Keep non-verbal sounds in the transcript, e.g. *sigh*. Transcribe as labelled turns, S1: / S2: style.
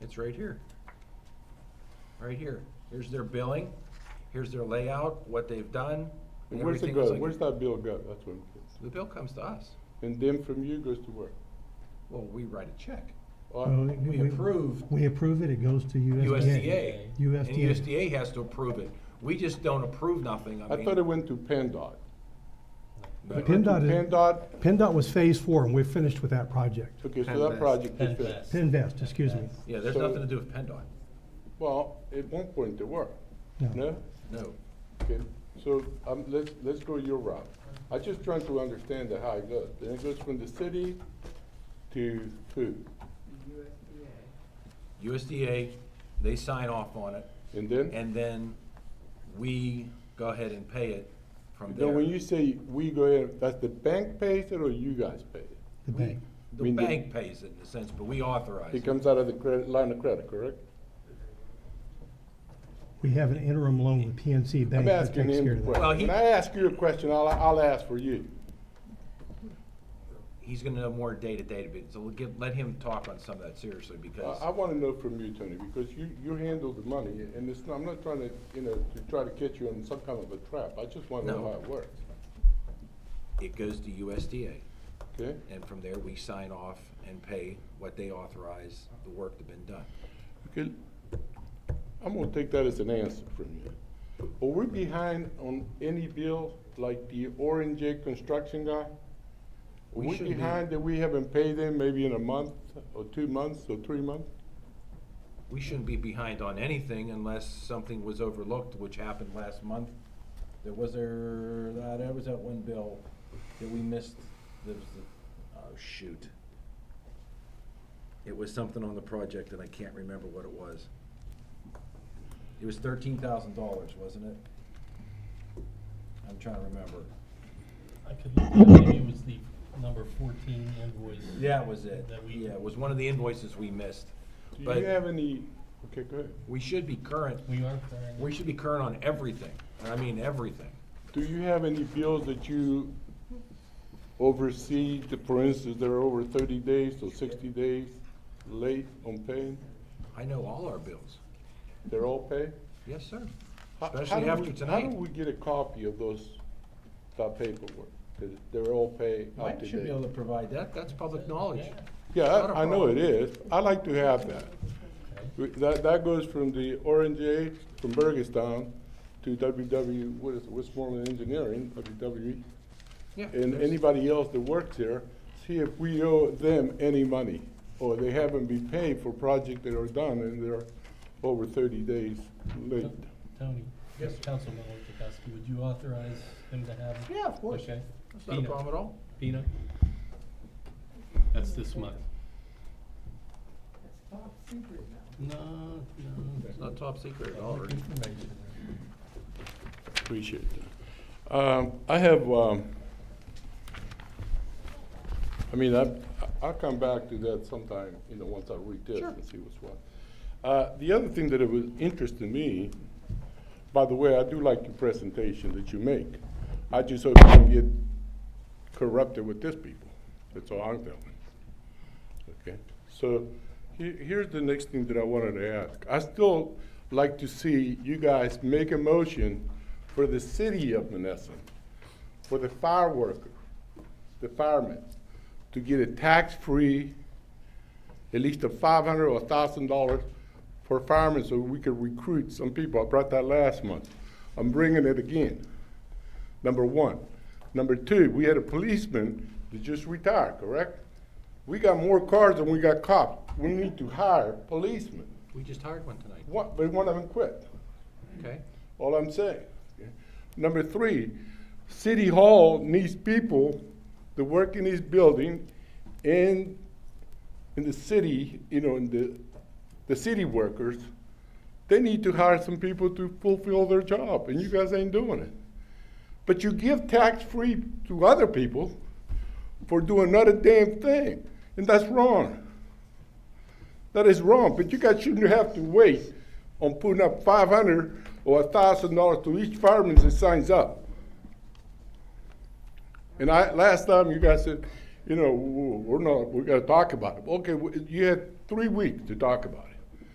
S1: It's right here. Right here. Here's their billing, here's their layout, what they've done. and
S2: Where's it
S1: everything.
S2: go?
S1: It's
S2: Where's
S1: like-
S2: that bill go? That's what I'm curious.
S1: The bill comes to us.
S2: And then from you goes to Oh, where?
S1: Well, we write a check.
S2: Or-
S3: Well, it-
S1: we approve-
S3: We approve it, it goes to USDA.
S1: USDA. And
S3: USDA.
S1: USDA has to approve it. We just don't approve nothing. I
S2: I thought it
S1: mean.
S2: went to PennDOT.
S1: but-
S3: Pin- PennDOT is-
S2: PennDOT,
S3: PennDOT was phase four, and we're finished with that project.
S2: okay, so that
S4: PennVest.
S2: project is
S4: PennVest.
S2: finished.
S3: Pinvest, excuse me.
S1: Yeah, there's
S2: so-
S1: nothing to do with PennDOT.
S2: Well, at one point there were, no?
S1: No.
S2: Okay, so, um, let's, let's go your route. I just trying to understand the how it goes. Then it goes from the city to who?
S1: USDA, they sign off on it,
S2: And then?
S1: and then we go ahead and pay it from there.
S2: Then when you say we go in, that's the bank pays it or you guys pay it?
S3: The bank.
S1: The
S2: mean the-
S1: bank pays it in a sense, but we authorize
S2: It
S1: it.
S2: comes out of the credit, line of credit, correct?
S3: We have an interim loan with PNC Bank
S2: I'm
S3: that
S2: asking
S3: takes care
S2: him a
S3: of that.
S1: Well, he-
S2: question. When I ask you a question, I'll, I'll ask for you.
S1: He's gonna know more day-to-day, but so we'll give, let him talk on some of that seriously,
S2: I,
S1: because.
S2: I wanna know from you, Tony, because you, you handle the money, and it's, not- I'm not trying to, you know, to try to catch you in some kind of a trap. I just wanna know
S1: No.
S2: how it works,
S1: It goes to USDA,
S2: okay?
S1: and from there, we sign off and pay what they authorize, the work that's been done.
S2: Okay, I'm gonna take that as an answer from you. Are we behind on any bill, like the Orange J construction guy? Are
S1: We
S2: we
S1: should be.
S2: behind that we haven't paid them maybe in a month, or two months, or three months?
S1: We shouldn't be behind on anything unless something was overlooked, which happened last month. There was there, that, there was that one bill that we missed, there was the, oh, shoot. It was something on the project and I can't remember what it was. It was thirteen thousand dollars, wasn't it? I'm trying to remember.
S4: I could, look, maybe it was the number fourteen invoice.
S1: Yeah, it was it.
S4: That we-
S1: Yeah, it was one of the invoices we missed.
S2: Do
S1: But-
S2: you have any, okay, go ahead.
S1: We should be current,
S4: We are current.
S1: we should be current on everything, and I mean everything.
S2: Do you have any bills that you oversee, that, for instance, that are over thirty days or sixty days late on paying?
S1: I know all our bills.
S2: They're all paid?
S1: Yes, sir.
S2: How- how
S1: Especially
S2: do
S1: after
S2: we- How
S1: tonight.
S2: do we get a copy of those, that paperwork? That they're all paid up
S1: Mike
S2: to
S1: should be able to
S2: date?
S1: provide that. That's public knowledge.
S2: Yeah,
S1: It's not a
S2: I I know it
S1: problem.
S2: is. I like to have that. We- That, that goes from the Orange A, from Burgestown to WW, what is it, Westmoreland Engineering, E. WW,
S1: Yeah.
S2: and
S1: there's-
S2: anybody else that works there, see if we owe them any money, or they haven't been paid for projects that are done and they're over thirty days late.
S4: Tony,
S1: Yes.
S4: Councilman Orchakowski, would you authorize him to have?
S1: Yeah, of course.
S4: Okay.
S1: That's not a
S4: Peanut.
S1: problem at all.
S4: Pina? That's this month. That's top secret now. No, no.
S1: It's not top secret at all.
S4: *laughs* Public
S1: Ernie.
S4: information.
S2: Appreciate that. Um, I have, um, I mean, I, I'll come back to that sometime, you know, once I read this
S1: Sure.
S2: and see what's what. Uh, the other thing that it was interesting me, by the way, I do like your presentation that you make. I just hope you don't get corrupted with this people. That's all I'm telling. Okay, so he- here's the next thing that I wanted to ask. I still like to see you guys make a motion for the city of Menneson, for the fire worker, the firemen, to get a tax-free, at least a five hundred or a thousand dollars for firemen so we could recruit some people. I brought that last month. I'm bringing it again number one. Number two, we had a policeman that just retired, correct? We got more cars than we got cops. We need to hire policemen.
S1: We just hired one tonight.
S2: What, but one of them quit,
S1: Okay?
S2: all I'm saying. Number three, City Hall needs people to work in this building and in the city, you know, in the, the city workers, they need to hire some people to fulfill their job, and you guys ain't doing it. But you give tax-free to other people for doing not a damn thing, and that's wrong. That is wrong, but you guys shouldn't have to wait on putting up five hundred or a thousand dollars to each fireman that signs up. And I, last time you guys said, you know, w- we're not, we gotta talk about it. Okay, w- you had three weeks to talk about it.